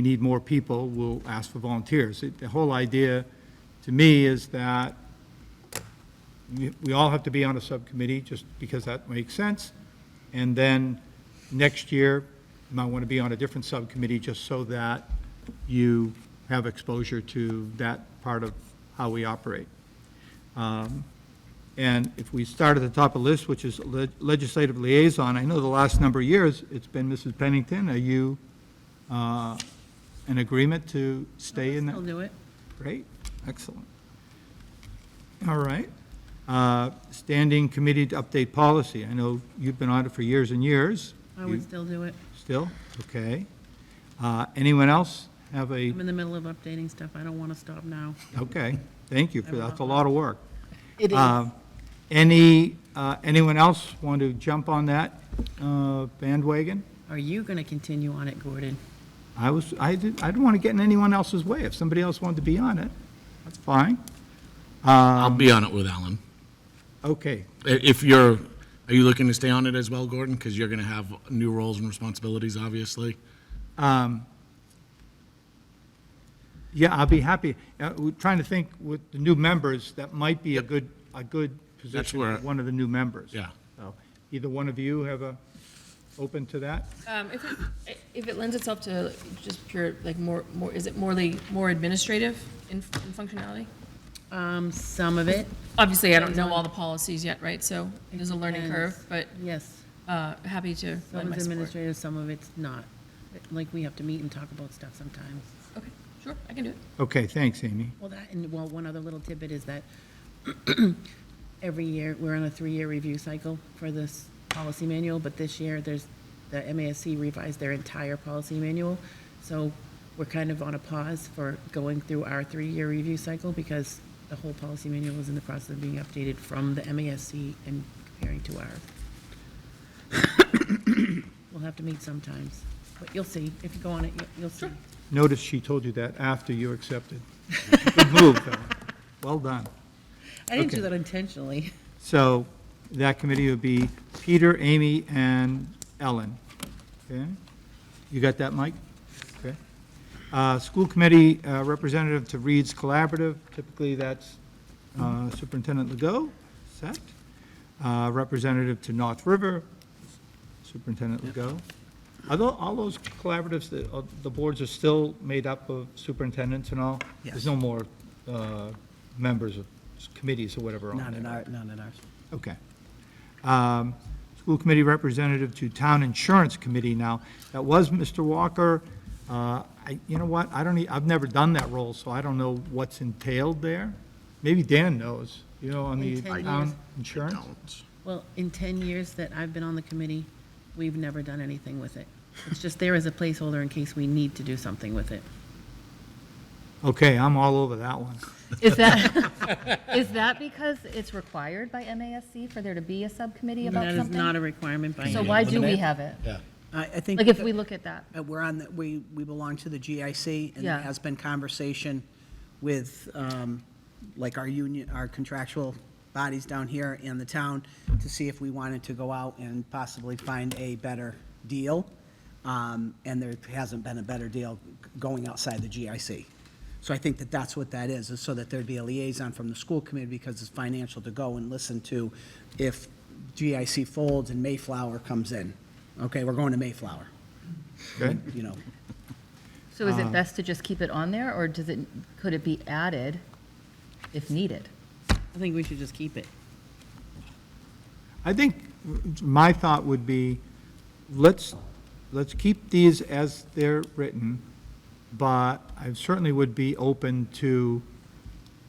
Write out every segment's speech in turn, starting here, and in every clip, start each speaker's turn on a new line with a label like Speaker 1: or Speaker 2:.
Speaker 1: we need more people, we'll ask for volunteers. It- The whole idea, to me, is that we- we all have to be on a subcommittee, just because that makes sense. And then, next year, you might want to be on a different subcommittee, just so that you have exposure to that part of how we operate. Um, And if we start at the top of the list, which is le- legislative liaison, I know the last number of years, it's been Mrs. Pennington. Are you uh, in agreement to stay in that?
Speaker 2: I'll do it.
Speaker 1: Great, excellent. All right. Uh, Standing committee to update policy. I know you've been on it for years and years.
Speaker 2: I
Speaker 1: You
Speaker 2: would still do it.
Speaker 1: Still? Okay. Uh, Anyone else have a?
Speaker 2: I'm in the middle of updating stuff. I don't want to stop now.
Speaker 1: Okay, thank you, for
Speaker 2: I will
Speaker 1: that's a
Speaker 2: not.
Speaker 1: lot of work.
Speaker 2: It is.
Speaker 1: Um, Any, uh, anyone else want to jump on that uh, bandwagon?
Speaker 2: Are you going to continue on it, Gordon?
Speaker 1: I was, I didn't, I didn't want to get in anyone else's way. If somebody else wanted to be on it, that's fine.
Speaker 3: I'll be on it with Alan.
Speaker 1: Okay,
Speaker 3: I- If you're, are you looking to stay on it as well, Gordon? Because you're going to have new roles and responsibilities, obviously.
Speaker 1: yeah, I'll be happy. Uh, We're trying to think with the new members, that might be a good, a good position
Speaker 3: where-
Speaker 1: for one of the new members.
Speaker 3: Yeah.
Speaker 1: So, Either one of you have a, open to that?
Speaker 4: Um, If it- if it lends itself to just pure, like, more, more, is it morely, more administrative in in functionality?
Speaker 2: Um, some of it.
Speaker 4: Obviously, I don't know all the policies yet, right? So there's a learning
Speaker 2: Depends.
Speaker 4: curve, but
Speaker 2: Yes.
Speaker 4: uh, happy to lend
Speaker 2: Some
Speaker 4: my
Speaker 2: is
Speaker 4: support.
Speaker 2: administrative, some of it's not. Like, we have to meet and talk about stuff sometimes.
Speaker 4: Okay, sure, I can do it.
Speaker 1: Okay, thanks, Amy.
Speaker 2: Well, that, and, well, one other little tidbit is that every year, we're on a three-year review cycle for this policy manual, but this year, there's, the MASC revised their entire policy manual. So we're kind of on a pause for going through our three-year review cycle because the whole policy manual is in the process of being updated from the MASC and comparing to ours. We'll have to meet sometimes, but you'll see. If you go on it, you- you'll see.
Speaker 1: Notice she told you that after you accepted. Good move, Ellen. Well done.
Speaker 2: I didn't do
Speaker 1: Okay.
Speaker 2: that intentionally.
Speaker 1: So that committee would be Peter, Amy, and Ellen. Okay? You got that, Mike? Okay. Uh, School committee uh, representative to Reed's Collaborative, typically that's uh, Superintendent Legault, set. Uh, Representative to North River, Superintendent Legault. Are tho- all those collaboratives, the- uh, the boards are still made up of superintendents and all? There's no more uh, members of committees or whatever on there?
Speaker 5: Not in our, not in ours.
Speaker 1: Okay. Um, School Committee Representative to Town Insurance Committee now. That was Mr. Walker. Uh, I, you know what, I don't, e- I've never done that role, so I don't know what's entailed there. Maybe Dan knows, you know, on the
Speaker 2: In ten
Speaker 1: town
Speaker 2: years.
Speaker 1: insurance?
Speaker 3: Don't.
Speaker 2: Well, in 10 years that I've been on the committee, we've never done anything with it. It's just there as a placeholder in case we need to do something with it.
Speaker 1: Okay, I'm all over that one.
Speaker 6: Is that, is that because it's required by MASC for there to be a subcommittee about
Speaker 2: That
Speaker 6: something?
Speaker 2: is not a requirement by
Speaker 6: So
Speaker 2: any,
Speaker 6: why do we have it?
Speaker 5: I, I think.
Speaker 6: Like, if we look at that,
Speaker 5: uh, We're on, the- we, we belong to the GIC, and there
Speaker 6: Yeah.
Speaker 5: has been conversation with, um, like, our union, our contractual bodies down here in the town, to see if we wanted to go out and possibly find a better deal. Um, And there hasn't been a better deal going outside the GIC. So I think that that's what that is, is so that there'd be a liaison from the school committee, because it's financial to go and listen to if GIC folds and Mayflower comes in. Okay, we're going to Mayflower
Speaker 1: Okay?
Speaker 5: you know,
Speaker 6: so is it best to just keep it on there, or does it, could it be added if needed?
Speaker 2: I think we should just keep it.
Speaker 1: I think my thought would be, let's, let's keep these as they're written, but I certainly would be open to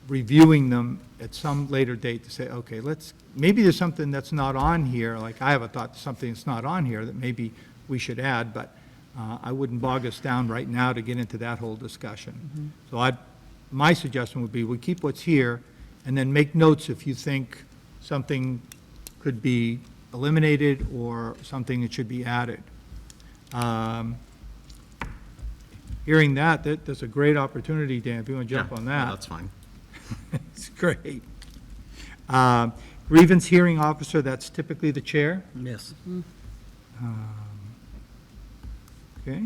Speaker 1: reviewing them at some later date to say, okay, let's, maybe there's something that's not on here, like I have a thought, something that's not on here that maybe we should add, but uh, I wouldn't bog us down right now to get into that whole discussion. So I, my suggestion would be, we keep what's here, and then make notes if you think something could be eliminated or something that should be added. Um, Hearing that, that, that's a great opportunity, Dan, if you want to jump
Speaker 3: Yeah,
Speaker 1: on
Speaker 3: no,
Speaker 1: that.
Speaker 3: That's fine.
Speaker 1: It's great. Um, Grievance hearing officer, that's typically the chair,
Speaker 5: Yes.
Speaker 1: Um, okay?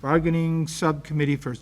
Speaker 1: bargaining subcommittee for